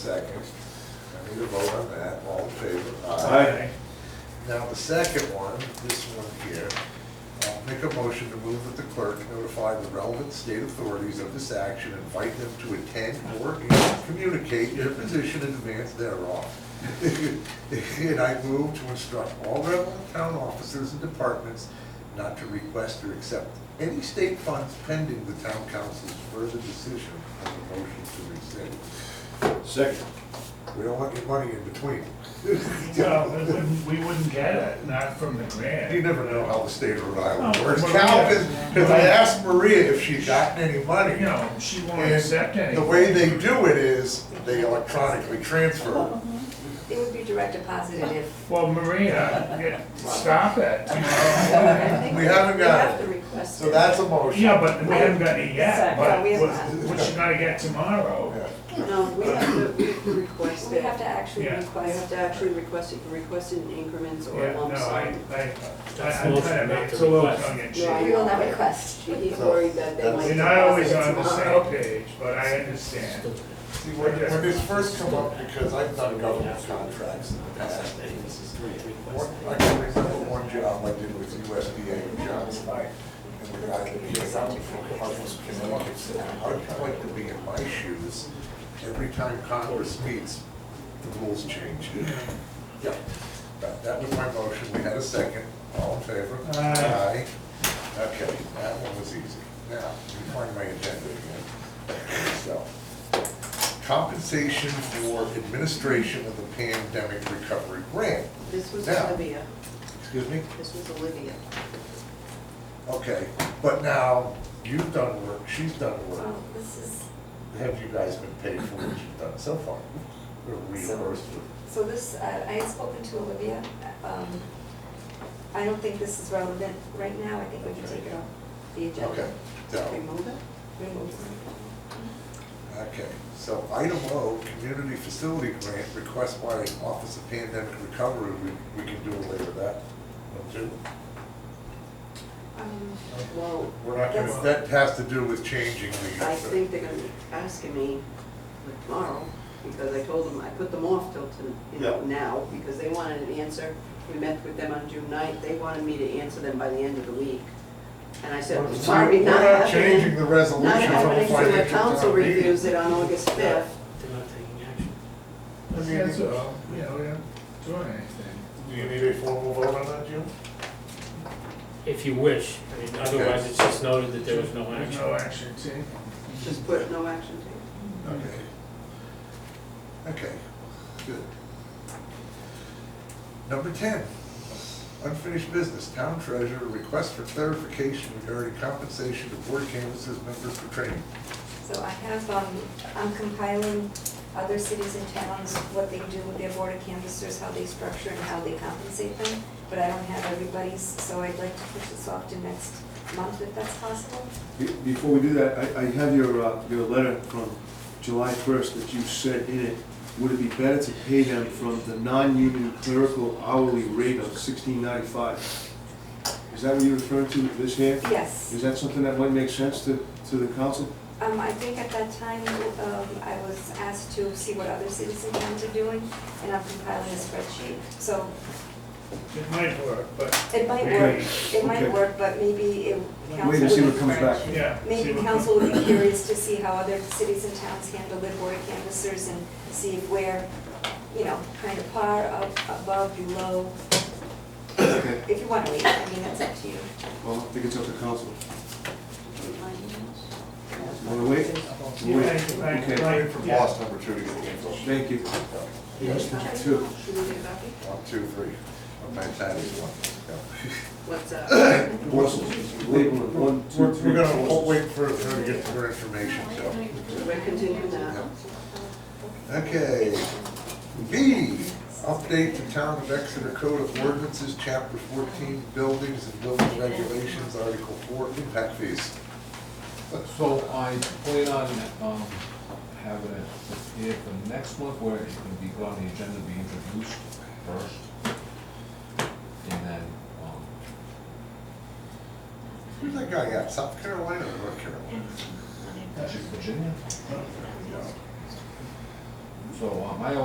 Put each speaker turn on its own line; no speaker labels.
Second. I need a vote on that. All in favor?
Aye.
Now, the second one, this one here, I'll make a motion to move that the clerk notify the relevant state authorities of this action, invite them to attend or communicate their position in advance thereof. And I move to instruct all relevant town officers and departments not to request or accept any state funds pending the town council's further decision on the motion to rescind.
Second.
We don't want your money in between.
No, we wouldn't, we wouldn't get it, not from the grant.
You never know how the state of Rhode Island
Oh,
works.
Maria.
Calvin, because I asked Maria if she'd gotten any money.
You know, she won't
and
accept any.
The way they do it is they electronically transfer.
It would be direct deposited if.
Well, Maria, yeah, stop it. you know.
We haven't got
We have
it.
to request it.
So that's a motion.
Yeah, but we haven't got it yet,
Sorry,
but
no, we
what
haven't.
what you gonna get tomorrow?
Yeah.
No, we have to, we have to request
We
it.
have to actually
Yeah.
We
request
have
it.
to actually request it, you request it in increments or
Yeah, no,
lump
I,
sum.
I, I-
That's
I'm
motion
kind of,
not to
it's a little
request.
tongue in cheek.
Yeah, I
We
know.
will not request.
He's worried that they might.
We're not always
deposit
on the
tomorrow.
same page, but I understand.
See, when, when this first come up, because I've done government contracts in the past, one- I can remember one job I did with USDA in Johnson. And the guy that came out from Hartford, Connecticut, said, "How'd you like to be in my shoes? Every time Congress meets, the rules change. Yeah, that, that was my motion, we had a second, all in favor?
Aye.
Aye. Okay, that one was easy. Now, you find my agenda again. So, compensation for administration of the pandemic recovery grant.
This was
Now,
Olivia,
Excuse me?
this was Olivia.
Okay, but now, you've done work, she's done work.
Oh.
Well, this is,
Have you guys been paid for what you've done so far? Or reimbursed for?
so this, uh, I I had spoken to Olivia. Um, I don't think this is relevant right now. I think we can take it off the agenda.
Okay, so,
Remove it?
Remove
okay. So item O, community facility grant request by Office of Pandemic Recovery, we, we can do later that. don't you?
Um,
Well,
We're not
That's-
gonna, that has to do with changing the.
I think they're gonna be asking me like, tomorrow, because I told them, I put them off till, to- you know,
Yeah.
now, because they wanted an answer. We met with them on June ninth, they wanted me to answer them by the end of the week. And I said,
We're-
sorry,
we're
not
not
happening.
changing the resolution
Not
from
happening, so the
financial
council
town meeting.
reviews it on August fifth.
They're not taking action.
That's all, you know, we don't do anything.
Do you need a formal vote on that, Jim?
If you wish, I mean, otherwise it's just noted that there was no
There's
action.
no action taken.
Just put no action taken.
Okay. Okay, good. Number ten, unfinished business, town treasurer, request for clarification regarding compensation to board canvases members for training.
So I have, um, I'm compiling other cities and towns, what they do with their board of canvassers, how they structure and how they compensate them, but I don't have everybody's, so I'd like to push this off to next month if that's possible.
Be- Before we do that, I, I have your, uh, your letter from July first that you said in it, would it be better to pay them from the non-union clerical hourly rate of sixteen ninety-five? Is that what you're referring to this here?
Yes,
Is that something that might make sense to, to the council?
um, I think at that time, um, I was asked to see what other cities and towns are doing, and I'm compiling a spreadsheet, so
It might work, but,
it might work,
Okay,
it might
okay.
work, but maybe it, council
Wait and see what
would-
comes back.
yeah. see
Maybe
what-
council would be curious to see how other cities and towns handle their board canvassers and see if we're, you know, kind of par, up- above, below.
Okay,
If you want to leave, I mean, that's up to you.
well, I think it's up to council. You
Yeah.
Wanna wait?
Yeah,
We'll
I-
wait.
I-
Okay.
I-
Wait for
yeah.
boss number two to get the info.
Thank you. Yes, that's true.
Should we get a copy?
One, two, three. My pad is one. Yeah.
What's, uh,
Wait, one,
We're,
two, three.
we're gonna hold- wait for her to get her information, so.
we're continuing now.
Okay. B, update the town of Exeter Code of Ordinances, Chapter 14, Buildings and Building Regulations, Article 4, Impact Fees.
So I plan on, um, having it prepared for next month, where it's gonna be put on the agenda, be introduced first. And then, um,
Who's that guy at, South Carolina or North Carolina?
that's Virginia?
Yeah.
So uh, my